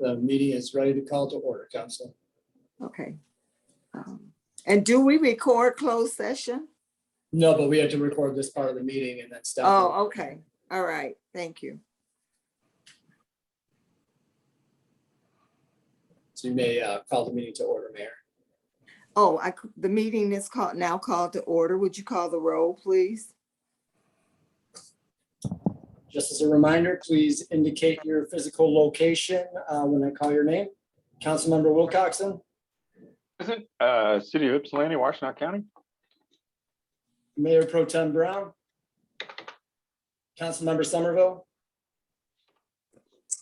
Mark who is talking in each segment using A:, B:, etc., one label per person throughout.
A: The meeting is ready to call to order, council.
B: Okay. Um, And do we record closed session?
A: No, but we have to record this part of the meeting and then stop. it.
B: Oh, okay. All right. Thank you.
A: So you may uh, call the meeting to order, Mayor.
B: Oh, I, c- the meeting is called, now called to order. Would you call the roll, please?
A: Just as a reminder, please indicate your physical location uh, when I call your name. Councilmember Wilcoxen,
C: Isn't uh, City of Ypsilanti, Washtenaw County?
A: Mayor Pro Tem Brown, Councilmember Somerville,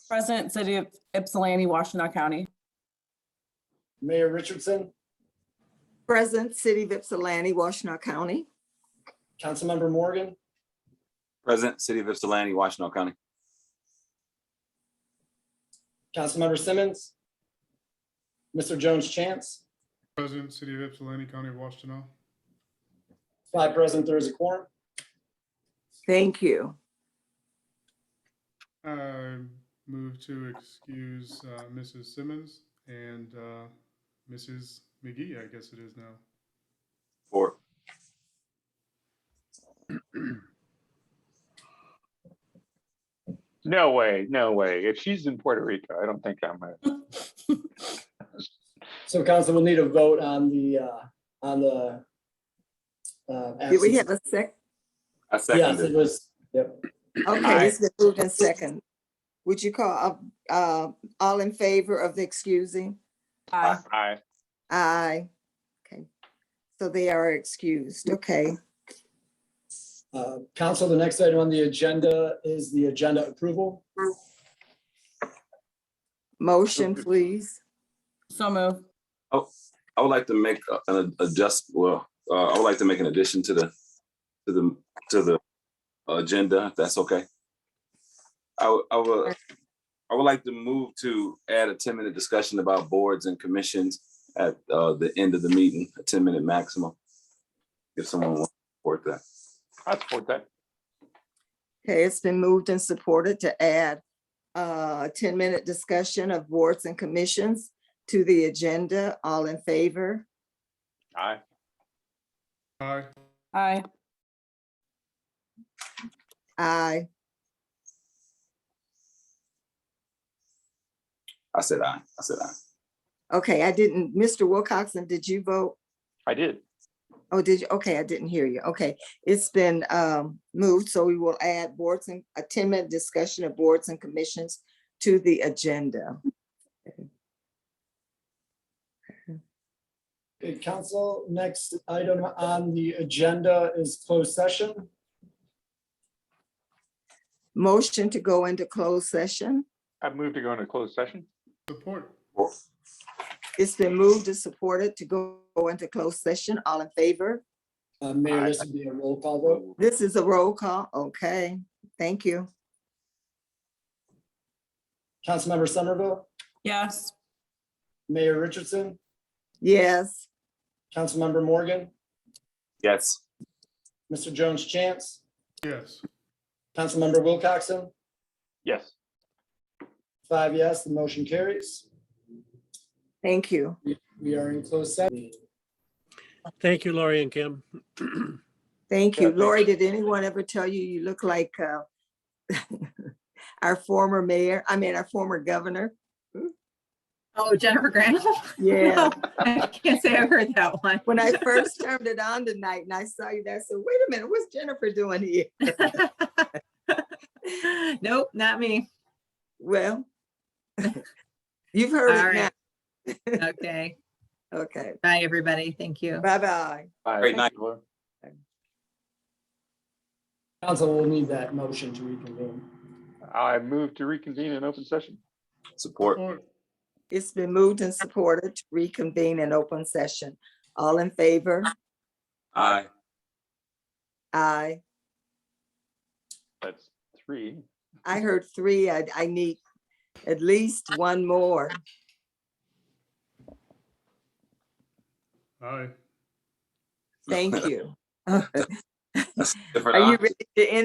D: President, City of Ypsilanti, Washtenaw County.
A: Mayor Richardson,
B: Present, City of Ypsilanti, Washtenaw County.
A: Councilmember Morgan,
E: President, City of Ypsilanti, Washtenaw County.
A: Councilmember Simmons, Mr. Jones Chance,
F: President, City of Ypsilanti, County of Washtenaw.
A: five present, there is a quorum.
B: Thank you.
F: I move to excuse uh, Mrs. Simmons and uh, Mrs. McGee, I guess it is now.
E: Four.
C: No way, no way. If she's in Puerto Rico, I don't think I'm, a-
A: So council will need a vote on the, uh, on the. uh,
B: Did we
A: absence.
B: have a sec?
E: I
A: Yes, it
E: seconded.
A: was, yep.
B: Okay, it's been moved and second. Would you call, uh, uh, all in favor of the excusing?
D: Aye.
C: I,
B: Aye. Okay. So they are excused. Okay.
A: Uh, Council, the next item on the agenda is the agenda approval.
B: Motion, please.
D: So move.
E: I would like to make a- an adjust, well, uh, I would like to make an addition to the, to the, to the agenda, if that's okay. I would, I would, I would like to move to add a ten-minute discussion about boards and commissions at uh, the end of the meeting, a ten-minute maximum. If someone wants to support that.
C: I support that.
B: Okay, it's been moved and supported to add a ten-minute discussion of boards and commissions to the agenda. All in favor?
C: Aye.
F: Aye.
D: Aye.
B: Aye.
E: I said aye, I said aye.
B: Okay, I didn't, Mr. Wilcoxen, did you vote?
C: I did.
B: Oh, did you? Okay, I didn't hear you. Okay, it's been um moved, so we will add boards and a ten-minute discussion of boards and commissions to the agenda.
A: Okay, Council, next item on the agenda is closed session.
B: Motion to go into closed session.
C: I've moved to go into closed session.
F: Support.
B: It's been moved and supported to go go into closed session. All in favor?
A: Uh, Mayor, this would be a roll call vote.
B: This is a roll call. Okay, thank you.
A: Councilmember Somerville,
D: Yes.
A: Mayor Richardson,
B: Yes,
A: Councilmember Morgan,
E: Yes.
A: Mr. Jones Chance,
F: Yes.
A: Councilmember Wilcoxen,
C: Yes.
A: five yes, the motion carries.
B: thank you.
A: We are in closed session.
G: Thank you, Laurie and Kim.
B: Thank
C: Yeah,
B: you.
C: thanks.
B: Lori, did anyone ever tell you you look like uh, our former mayor, I mean, our former governor?
H: Oh, Jennifer Granholm?
B: Yeah,
H: I can't say I've heard that one.
B: when I first turned it on tonight and I saw you there, I said, wait a minute, what's Jennifer doing here?
H: Nope, not me.
B: Well, you've
H: All
B: heard it
H: right.
B: now.
H: Okay.
B: Okay,
H: Bye, everybody. Thank you.
B: bye-bye.
C: Aye.
E: Great night.
A: Council will need that motion to reconvene.
C: I move to reconvene in open session.
E: Support.
F: Support.
B: It's been moved and supported to reconvene in open session. All in favor?
E: Aye.
B: Aye.
C: That's three.
B: I heard three. I, I need at least one more.
F: Aye.
B: Thank you. Are
E: Different aye.
B: you ready to end?